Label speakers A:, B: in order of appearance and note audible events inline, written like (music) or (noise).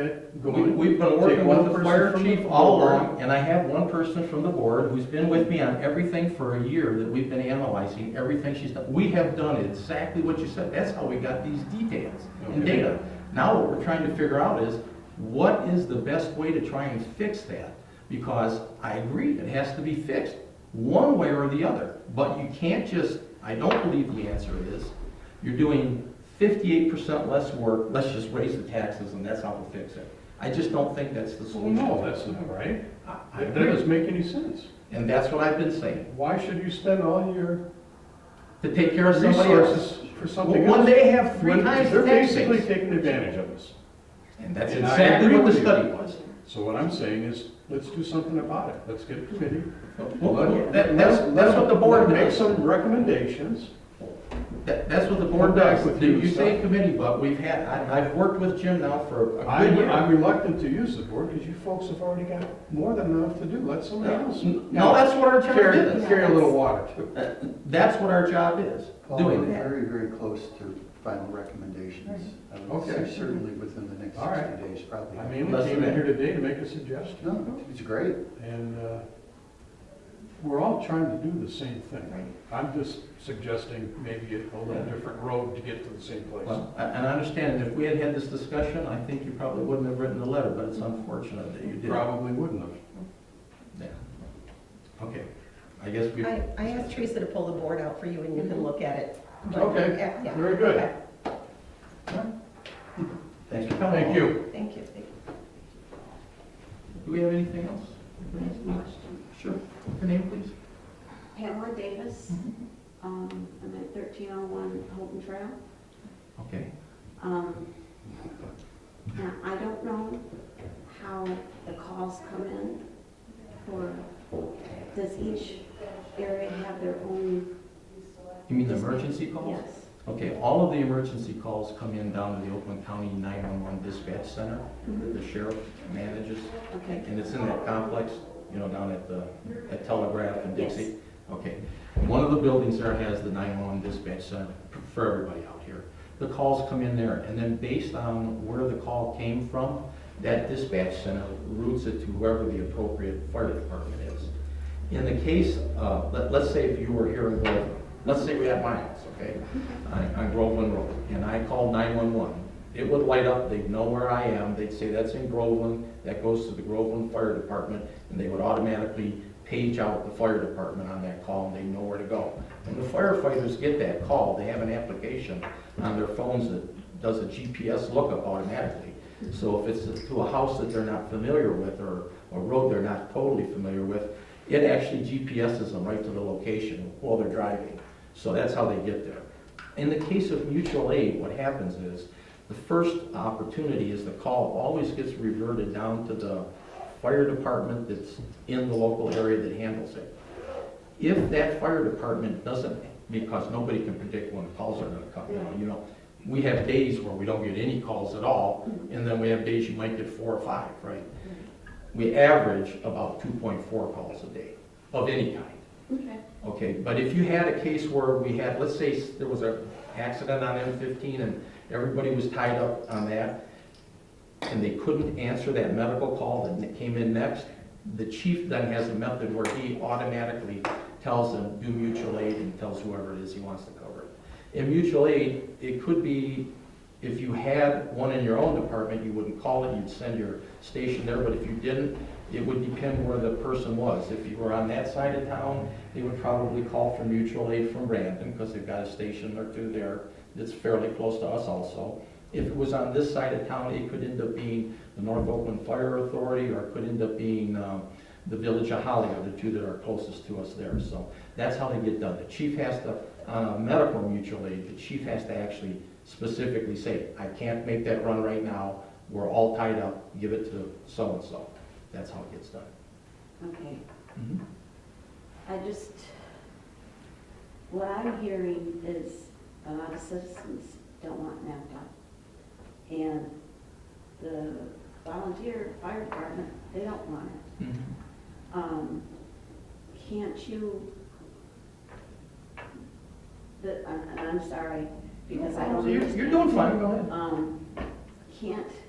A: that
B: We-
A: going.
B: We've been
A: Take
B: working
A: one
B: with the
A: person
B: fire
A: from the
B: chief all
A: board.
B: along, and I have one person from the board who's been with me on everything for a year that we've been analyzing, everything she's done. We have done exactly what you said. That's how we got these details and
A: Okay.
B: data. Now what we're trying to figure out is, what is the best way to try and fix that? Because I agree, it has to be fixed, one way or the other. But you can't just, I don't believe the answer is, you're doing fifty-eight percent less work, let's just raise the taxes and that's how we'll fix it. I just don't think that's the
A: Well,
B: solution.
A: no, that's not right.
B: I
A: That
B: agree,
A: doesn't make any sense.
B: and that's what I've been saying,
A: Why should you spend all your
B: to take care of somebody else.
A: resources for something
B: When
A: else?
B: they have three
A: When
B: times the
A: They're
B: tax
A: basically
B: base.
A: taking advantage of us.
B: And that's
A: And I
B: exactly
A: agree
B: what the
A: with you.
B: study was.
A: So what I'm saying is, let's do something about it. Let's get a committee.
B: Well,
A: Let-
B: that- that's,
A: let-
B: that's what the board
A: let- Make
B: does.
A: some recommendations.
B: That, that's what the board
A: Come back
B: does.
A: with
B: You
A: you,
B: you say
A: so-
B: committee, but we've had, I, I've worked with Jim now for a good
A: I'm,
B: year.
A: I'm reluctant to use the board because you folks have already got more than enough to do. Let somebody else.
B: No, that's what our job
A: Carry,
B: is.
A: carry a little water too.
B: That's what our job is,
C: Paul, we're
B: doing that.
C: very, very close to final recommendations. I would
A: Okay.
C: say certainly within the next
A: All right.
C: 60 days, probably.
A: I mainly
B: Less
A: came
B: than
A: in
B: that.
A: here today to make a suggestion.
C: No, it's great.
A: And uh, we're all trying to do the same thing. I'm just suggesting maybe a little different road to get to the same place.
B: Well, a- and I understand, if we had had this discussion, I think you probably wouldn't have written the letter, but it's unfortunate that you did.
A: Probably wouldn't have.
B: Yeah. Okay, I guess we,
D: I, I asked Teresa to pull the board out for you and you can look at it.
A: Mm-hmm. Okay,
D: Yeah, yeah.
A: very good.
D: Okay.
B: thanks for coming.
A: Thank you.
D: Thank you, thank you.
B: Do we have anything else? Sure, your name, please?
E: Pamela Davis. Um, I'm at 1301 Holton Trail.
B: Okay.
E: Um, Now, I don't know how the calls come in for, does each area have their own?
B: You mean the emergency calls?
E: Yes.
B: Okay, all of the emergency calls come in down to the Oakland County 911 Dispatch Center that
E: Mhm.
B: the sheriff manages,
E: Okay,
B: and it's in that complex, you know, down at the, at Telegraph and
E: Yes.
B: Dixie? Okay. One of the buildings there has the 911 Dispatch Center for everybody out here. The calls come in there, and then based on where the call came from, that dispatch center routes it to whoever the appropriate fire department is. In the case, uh, let, let's say if you were here in Groveland, let's say we had my house,
E: (laughs)
B: okay, on, on Groveland Road, and I called nine-one-one. It would light up, they'd know where I am, they'd say, that's in Groveland, that goes to the Groveland Fire Department, and they would automatically page out the fire department on that call, and they know where to go. When the firefighters get that call, they have an application on their phones that does a GPS lookup automatically. So if it's to a house that they're not familiar with, or a road they're not totally familiar with, it actually GPSes them right to the location while they're driving. So that's how they get there. In the case of mutual aid, what happens is, the first opportunity is the call always gets reverted down to the fire department that's in the local area that handles it. If that fire department doesn't, because nobody can predict when the calls are gonna come, you know, you know, we have days where we don't get any calls at all, and then we have days you might get four or five, right? We average about two point four calls a day, of any kind.
E: okay.
B: Okay, but if you had a case where we had, let's say s- there was an accident on M fifteen and everybody was tied up on that, and they couldn't answer that medical call that n- came in next, the chief then has a method where he automatically tells them, do mutual aid, and tells whoever it is he wants to cover it. In mutual aid, it could be, if you had one in your own department, you wouldn't call it, you'd send your station there, but if you didn't, it would depend where the person was. If you were on that side of town, they would probably call for mutual aid from Brandon, because they've got a station or two there that's fairly close to us also. If it was on this side of town, it could end up being the North Oakland Fire Authority, or it could end up being um, the Village of Holly, are the two that are closest to us there. So that's how they get done. The chief has to, on a medical mutual aid, the chief has to actually specifically say, I can't make that run right now, we're all tied up, give it to so-and-so. That's how it gets done.
E: Okay. I just, what I'm hearing is a lot of citizens don't want NAPDOT. And the volunteer fire department, they don't want it. Um, Can't you, the, and and I'm sorry, because I don't
B: You're,
E: understand.
B: you're doing fine, go ahead.
E: Um, can't